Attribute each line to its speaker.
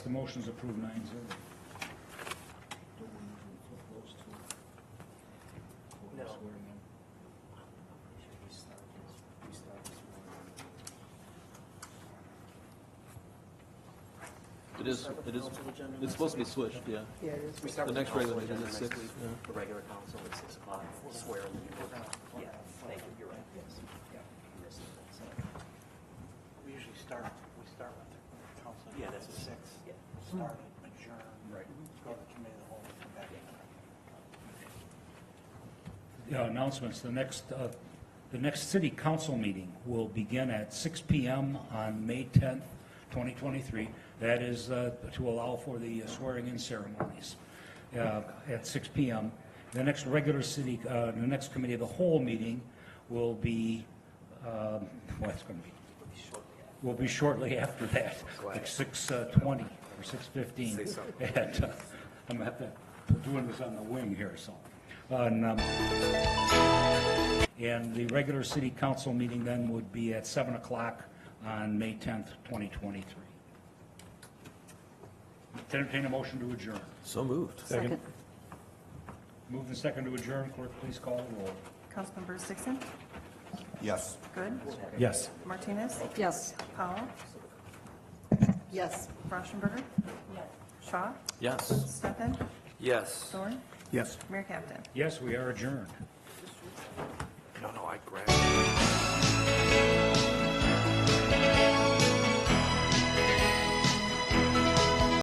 Speaker 1: The motion's approved nine zero.
Speaker 2: No.
Speaker 3: It is, it is, it's supposed to be switched, yeah.
Speaker 4: Yeah, it is.
Speaker 2: We start
Speaker 3: The
Speaker 2: with
Speaker 3: next
Speaker 2: council
Speaker 3: regular meeting
Speaker 2: agenda
Speaker 3: is
Speaker 2: next
Speaker 3: six,
Speaker 2: week.
Speaker 3: yeah.
Speaker 2: The regular council at six o'clock, swear in the Yeah, thank you, you're right, yes. Yeah, you missed it, so,
Speaker 5: We usually start, we start with the council.
Speaker 2: Yeah, that's
Speaker 5: at
Speaker 2: what-
Speaker 5: Six.
Speaker 2: yeah.
Speaker 5: Start it, adjourn.
Speaker 1: Right.
Speaker 5: Go to the committee of the whole, come back.
Speaker 1: Yeah, uh, announcements, the next, uh, the next city council meeting will begin at six PM on May tenth, twenty twenty-three. That is uh, to allow for the swearing-in ceremonies uh, at six PM. The next regular city, uh, the next committee of the whole meeting will be, um, well, it's going to be,
Speaker 2: it'll be shortly after.
Speaker 1: will be shortly after that, like six uh, twenty or six fifteen. And uh, I'm gonna have to, doing this on the wing here, so. And, um, and the regular city council meeting then would be at seven o'clock on May tenth, twenty twenty-three. Entertain a motion to adjourn.
Speaker 3: So moved.
Speaker 4: Second.
Speaker 1: Move the second to adjourn, clerk, please call the roll.
Speaker 6: Councilmember Dixon?
Speaker 7: Yes.
Speaker 6: Good.
Speaker 7: Yes.
Speaker 6: Martinez?
Speaker 4: Yes.
Speaker 6: Powell?
Speaker 4: Yes.
Speaker 6: Rauschenberger? Shaw?
Speaker 3: Yes.
Speaker 6: Stefan?
Speaker 2: Yes.
Speaker 6: Thorn?
Speaker 7: Yes.
Speaker 6: Mayor Captain?
Speaker 1: Yes, we are adjourned.
Speaker 2: No, no, I grabbed.